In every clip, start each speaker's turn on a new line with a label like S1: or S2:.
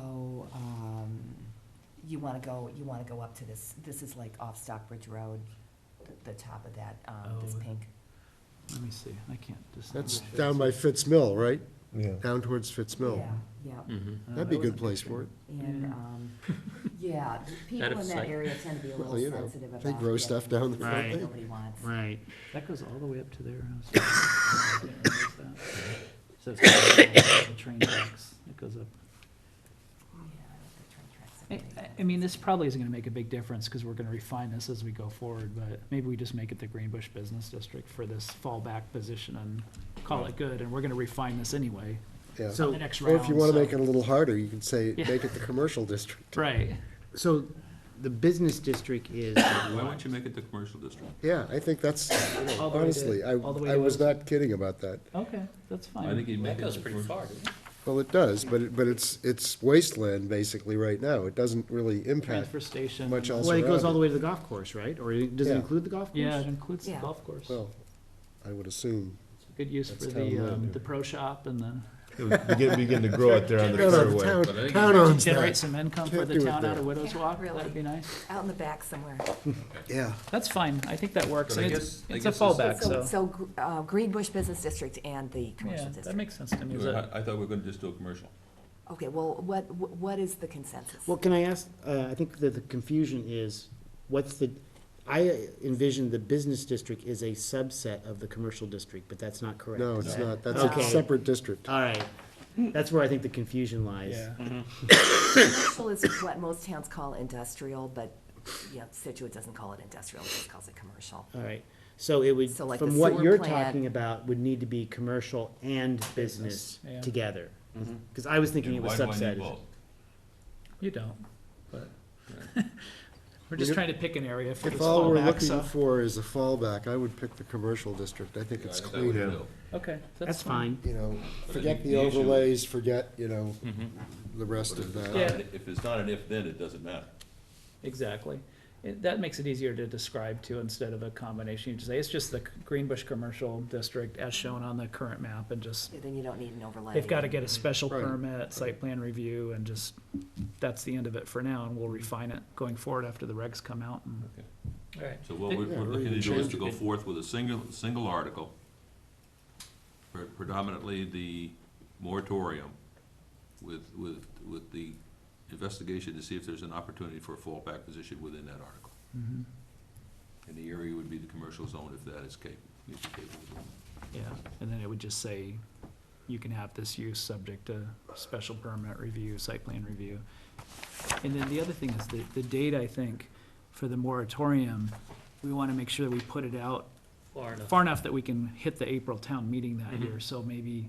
S1: So, um, you wanna go, you wanna go up to this, this is like off Stockbridge Road, the, the top of that, um, this
S2: Oh.
S1: pink.
S2: Let me see, I can't distinguish. Uh,
S3: That's down by Fitz Mill, right?
S4: Yeah.
S3: Down towards Fitz Mill.
S1: Yeah, yeah.
S2: Mm-hmm.
S3: That'd be a good place for it.
S1: And,
S2: Hmm. Yeah.
S1: um, yeah, the people in that
S5: sight.
S1: area tend to be a
S3: Well,
S1: little
S3: you know,
S1: sensitive about.
S3: They grow
S1: getting
S3: stuff down there.
S1: that
S3: don't
S5: Right.
S3: they?
S1: Nobody wants.
S5: Right.
S2: That goes all the way up to their house. I didn't realize that. So it's the train tracks, it goes up.
S1: Yeah, the train tracks are
S2: I,
S1: really
S2: I-
S1: bad.
S2: I mean, this probably isn't gonna make a big difference, because we're gonna refine this as we go forward, but maybe we just make it the Greenbush Business District for this fallback position and call it good, and we're gonna refine this anyway,
S3: Yeah.
S2: on
S4: So-
S2: the next
S3: Or
S2: round.
S3: if you want
S2: so-
S3: to make it a little harder, you can say,
S2: Yeah.
S3: make it the commercial district.
S2: Right,
S4: So the business district is.
S6: Why won't you make it the commercial district?
S3: Yeah, I think that's, you know,
S2: All the way to-
S3: honestly, I,
S2: all the way
S3: I
S2: to
S3: was
S2: us.
S3: not kidding about that.
S2: okay, that's fine.
S6: I think you'd make
S5: That
S6: it.
S5: goes
S6: the
S5: pretty
S6: commercial
S5: far,
S6: district.
S5: doesn't it?
S3: Well, it does, but it, but it's, it's wasteland basically right now. It doesn't really impact
S2: Transfer station.
S3: much else
S4: Well, it goes all
S3: around
S4: the
S3: it.
S4: way to the golf course, right? Or it- does it
S3: Yeah.
S4: include the golf course?
S2: Yeah, it includes the
S1: Yeah.
S2: golf course.
S3: Well, I would assume.
S2: Good use for
S3: That's town
S2: the,
S3: road.
S2: um, the pro shop and the,
S7: Begin, begin to grow out there on the
S3: No, no, the
S7: fairway.
S3: town,
S6: but I think
S3: town owns
S2: generate
S3: that.
S2: some income for
S3: Can't
S2: the
S3: do it
S2: town out
S3: there.
S2: of Widows
S1: Yeah,
S2: Walk,
S1: really.
S2: that'd be nice.
S1: Out in the back somewhere.
S3: Yeah.
S2: That's fine, I think that works,
S6: But I
S2: and it's,
S6: guess- I
S2: it's a
S6: guess this-
S2: fallback, so,
S1: So, gr- uh, Green Bush Business District and the commercial
S2: yeah, that
S1: district.
S2: makes sense to me,
S6: You
S2: is
S6: were-
S2: that,
S6: I I thought we were gonna just do a commercial.
S1: Okay, well, what, wh- what is the consensus?
S4: Well, can I ask, uh, I think that the confusion is, what's the, I envision the business district is a subset of the commercial district, but that's not correct.
S3: No,
S4: is
S3: it's
S4: it?
S3: not. That's a
S4: Okay.
S3: separate district.
S4: All right, that's where I think the confusion lies.
S2: yeah.
S1: Commercial is what most towns call industrial, but, you know, Situate doesn't call it industrial, it just calls it commercial.
S4: All right, so it would,
S1: So like
S4: from
S1: the
S4: what
S1: sewer
S4: you're
S1: plant-
S4: talking about, would need to be commercial and business
S2: Yeah.
S4: together. Cause I was thinking it
S6: Mm-hmm. And
S4: was
S6: why do I
S4: subset.
S6: need both?
S2: You don't, but, we're just
S3: If-
S2: trying to pick an area for this
S3: If all we're
S2: fallback,
S3: looking
S2: so,
S3: for is a fallback, I would pick the commercial district. I think
S6: Yeah, I
S3: it's
S6: think that would
S3: cleaner.
S6: do.
S2: okay,
S4: That's fine.
S3: You know,
S6: But I
S3: forget
S6: think
S3: the
S6: the issue-
S3: overlays, forget, you know, the rest of
S6: But
S3: that.
S2: Yeah.
S6: if it's not an- If it's not an if, then it doesn't matter.
S2: Exactly. It, that makes it easier to describe too, instead of a combination. You just say, it's just the Greenbush Commercial District as shown on the current map and just,
S1: Then you don't need an overlay.
S2: they've gotta get a special
S3: Right.
S2: permit, site plan review, and just, that's the end of it for now, and we'll refine it going forward after the regs come out and.
S6: Okay.
S2: Alright.
S6: So what we're
S3: Yeah,
S6: we're
S3: we
S6: looking
S3: can
S6: to do is
S3: change
S6: to go forth with a single, single article, pre- predominantly the moratorium, with, with, with the investigation to see if there's an opportunity for a fallback position within that article. And the area would be the commercial zone if that is capable, is capable of doing.
S2: Yeah, and then it would just say, you can have this use subject to special permit review, site plan review. And then the other thing is the, the date, I think, for the moratorium, we wanna make sure that we put it out
S5: Far enough. Mm-hmm.
S2: far enough that we can hit the April town meeting that year, so maybe,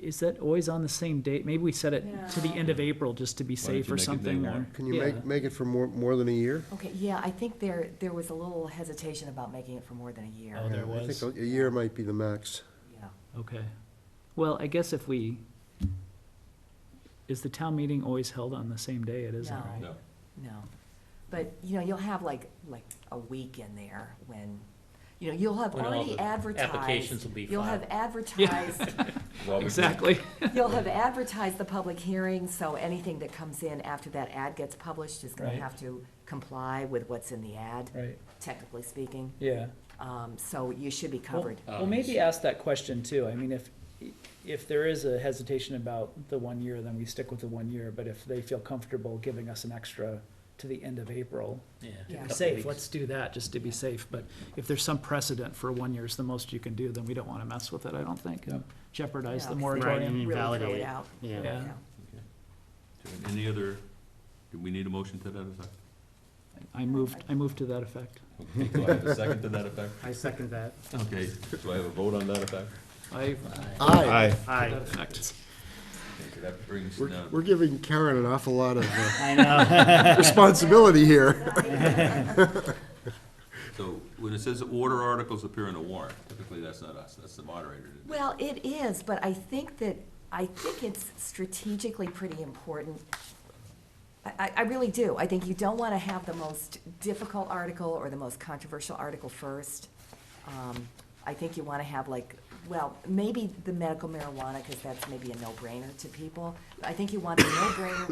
S2: is that always on the same date? Maybe we set it to the end of April just to be
S6: don't
S2: safe
S6: you
S2: or
S6: make it day
S2: something,
S6: one?
S2: or.
S3: Can you
S2: Yeah.
S3: make, make it for more, more than a year?
S1: Okay, yeah, I think there, there was a little hesitation about making it for more than a year.
S2: Oh, there
S3: I
S2: was.
S3: think a a year might be the max.
S1: Yeah.
S2: Okay. Well, I guess if we, is the town meeting always held on the same day? It isn't,
S1: No.
S2: right?
S6: No,
S1: No. But, you know, you'll have like, like a week in there when, you know, you'll have
S5: When all
S1: already
S5: the
S1: advertised.
S5: applications will be
S1: You'll have
S5: filed.
S1: advertised,
S6: Well, we-
S2: Exactly.
S1: you'll have advertised the public hearing, so anything that comes in after that ad gets published is gonna
S2: Right.
S1: have to comply with what's in the ad,
S2: Right,
S1: technically speaking.
S2: yeah.
S1: Um, so you should be covered.
S5: Um,
S2: Well, maybe ask that question too. I mean, if, if there is a hesitation about the one year, then we stick with the one year. But if they feel comfortable giving us an extra to the end of April,
S5: Yeah. a
S1: Yeah.
S2: to be
S5: couple
S2: safe,
S5: weeks.
S2: let's do that, just to be safe. But if there's some precedent for one year's the most you can do, then we don't want to mess with it, I don't think, and jeopardize
S1: Yeah,
S2: the
S1: 'cause they
S2: moratorium.
S1: Really throw
S4: Invalidate
S1: it
S4: it.
S1: out.
S2: Yeah.
S1: Yeah.
S6: Any other, do we need a motion to that effect?
S2: I moved, I moved to that effect.
S6: Okay, Do I have a second to that effect?
S4: I second that.
S6: Okay, do I have a vote on that effect?
S2: I,
S3: Aye.
S7: Aye.
S4: Aye.
S2: that effect.
S6: Okay, that brings
S3: We're,
S6: down.
S3: we're giving Karen an awful lot of uh,
S4: I know.
S3: responsibility here.
S6: So when it says order articles appear in a warrant, typically that's not us, that's the moderator.
S1: Well, it is, but I think that, I think it's strategically pretty important. I- I, I really do. I think you don't want to have the most difficult article or the most controversial article first. Um, I think you want to have like well, maybe the medical marijuana, because that's maybe a no-brainer to people. I think you want a no-brainer